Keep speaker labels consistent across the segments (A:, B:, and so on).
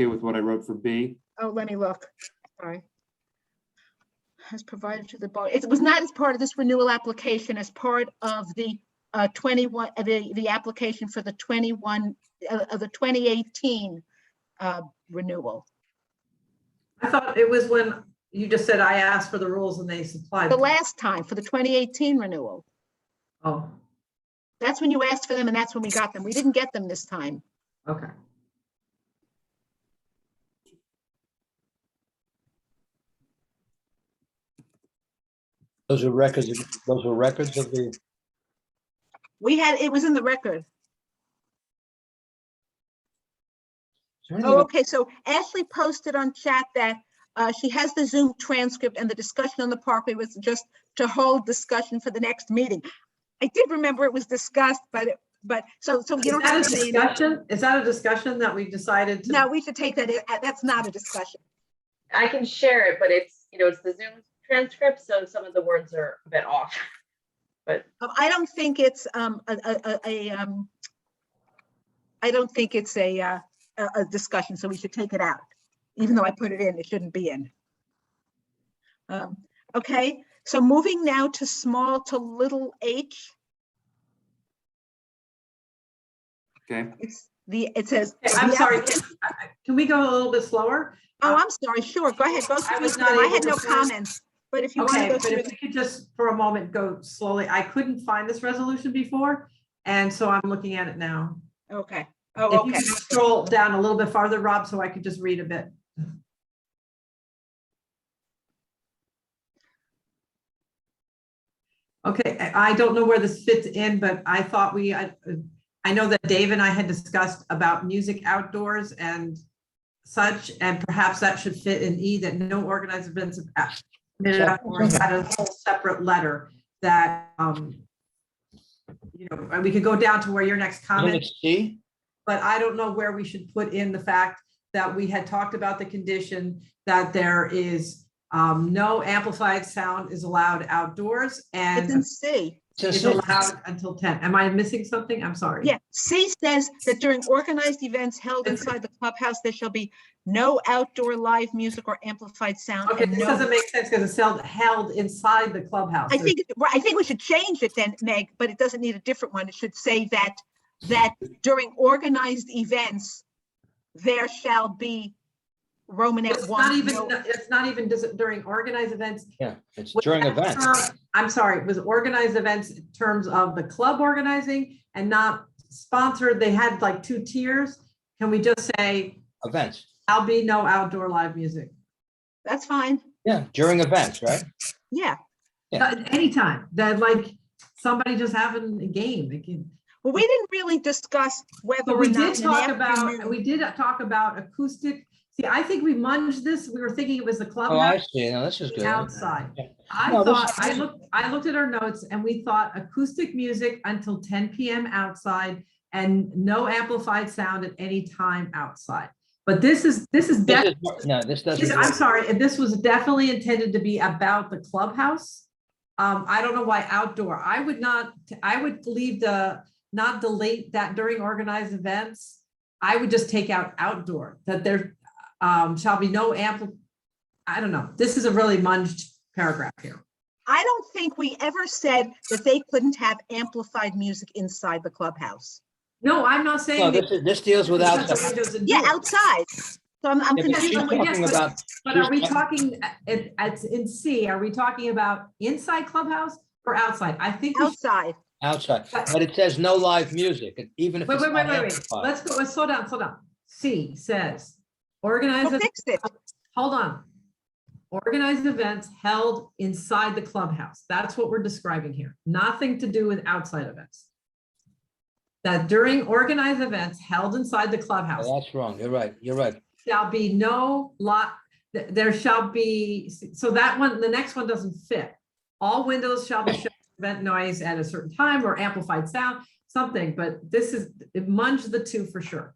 A: okay with what I wrote for B?
B: Oh, let me look. Sorry. Has provided to the body. It was not as part of this renewal application, as part of the uh, 21, uh, the, the application for the 21, uh, of the 2018 uh, renewal.
C: I thought it was when you just said I asked for the rules and they supplied.
B: The
C: them.
B: last time, for the 2018 renewal.
C: Oh,
B: That's when you asked for them and that's when we got them. We didn't get them this time.
C: okay.
D: Those are records, those are records of the,
B: We had, it was in the record.
D: is there anything
B: Oh,
D: in
B: okay, so Ashley posted on chat that uh, she has the Zoom transcript and the discussion on the Parkway was just to hold discussion for the next meeting. I did remember it was discussed, but, it- but, so, so you
C: Is
B: don't
C: that
B: have
C: a
B: to say,
C: discussion? Is that a discussion that we decided
B: no,
C: to?
B: we should take that, i- that's not a discussion.
E: I can share it, but it's, you know, it's the Zoom transcript, so some of the words are a bit off.
B: Um, I don't think it's um, a, a, a, a, um, I don't think it's a, uh, a, a discussion, so we should take it out. Even though I put it in, it shouldn't be in. Um, Okay, so moving now to small to little h,
A: Okay,
B: it's the, it says.
C: Okay, I'm
B: the
C: sorry,
B: applicant-
C: can- I- I- can we go a little bit slower?
B: Oh, I'm sorry, sure, go ahead, go
C: I
B: through
C: was
B: them.
C: not
B: I
C: able
B: had
C: to
B: no
C: first-
B: comments, but if you want to
C: Okay,
B: go
C: but
B: through.
C: if we could just for a moment go slowly, I couldn't find this resolution before, and so I'm looking at it now.
B: Okay, oh,
C: If you
B: okay.
C: could scroll down a little bit farther, Rob, so I could just read a bit. Okay, I I don't know where this fits in, but I thought we, I, I know that Dave and I had discussed about music outdoors and such, and perhaps that should fit in E, that no organized events of out- committed outdoors had a whole separate letter that, um, you know, and we could go down to where your next
D: I
C: comment
D: think it's C?
C: but I don't know where we should put in the fact that we had talked about the condition that there is um, no amplified sound is allowed outdoors
B: It's in
C: and
B: C.
C: is allowed until ten. Am I missing something? I'm sorry.
B: Yeah, C says that during organized events held inside the clubhouse, there shall be no outdoor live music or amplified sound.
C: Okay,
B: and
C: this
B: no-
C: doesn't make sense because it's held, held inside the clubhouse.
B: I think, it- right, I think we should change it then, Meg, but it doesn't need a different one. It should say that, that during organized events, there shall be Roman at
C: It's not
B: one.
C: even,
B: no-
C: it's not even dis- during organized events.
D: Yeah, it's
C: Was
D: during
C: that
D: events.
C: term- I'm sorry, it was organized events in terms of the club organizing and not sponsored. They had like two tiers. Can we just say
D: events.
C: I'll be no outdoor live music.
B: That's fine.
D: Yeah, during events, right?
B: Yeah.
D: Yeah.
C: Uh, Anytime, that like, somebody just having a game, it can.
B: Well, we didn't really discuss whether
C: But
B: or
C: we did
B: not. an
C: talk about,
B: afternoon-
C: we did talk about acoustic, see, I think we munged this, we were thinking it was the
D: Oh, I
C: clubhouse
D: see. Now, this is good.
C: outside.
D: Yeah.
C: I
D: No, this-
C: thought, I looked, I looked at our notes and we thought acoustic music until ten PM outside and no amplified sound at any time outside. But this is, this is
D: This
C: definitely
D: is- No, this
C: This-
D: doesn't.
C: I'm
D: work.
C: sorry, and this was definitely intended to be about the clubhouse. Um, I don't know why outdoor. I would not, I would leave the, not delete that during organized events. I would just take out outdoor, that there um shall be no ample. I don't know. This is a really munged paragraph here.
B: I don't think we ever said that they couldn't have amplified music inside the clubhouse.
C: No, I'm not
D: No,
C: saying.
D: this
C: that-
D: is, this deals with
C: That's what
D: outdoors.
C: it doesn't
B: Yeah,
C: do.
B: outside. So I'm, I'm
D: Yeah, but
B: confused.
D: She's
B: on what-
D: talking about,
C: But are we
D: Here's-
C: talking, uh, it, it's in C, are we talking about inside clubhouse or outside? I think we should
B: Outside.
D: outside, but it says no live music, and even if
C: Wait,
D: it's
C: wait,
D: not
C: wait, wait, wait.
D: amplified.
C: Let's go, let's slow down, slow down. C says,
B: Well,
C: organize, ev-
B: fix it.
C: hold on. Organized events held inside the clubhouse. That's what we're describing here. Nothing to do with outside events. That during organized events held inside the clubhouse
D: Oh, That's wrong. You're right. You're right.
C: shall be no lot, th- there shall be, so that one, the next one doesn't fit. All windows shall be shut, to prevent noise at a certain time or amplified sound, something, but this is, it munged the two for sure.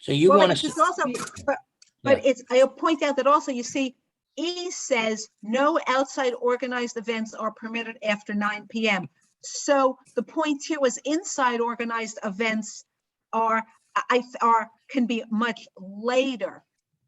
D: So you
B: Well,
D: want
B: it's
D: to,
B: just Also, but, but it's, I'll point out that also, you see, E says no outside organized events are permitted after nine PM. So the point here was inside organized events are, I, I- are, can be much later.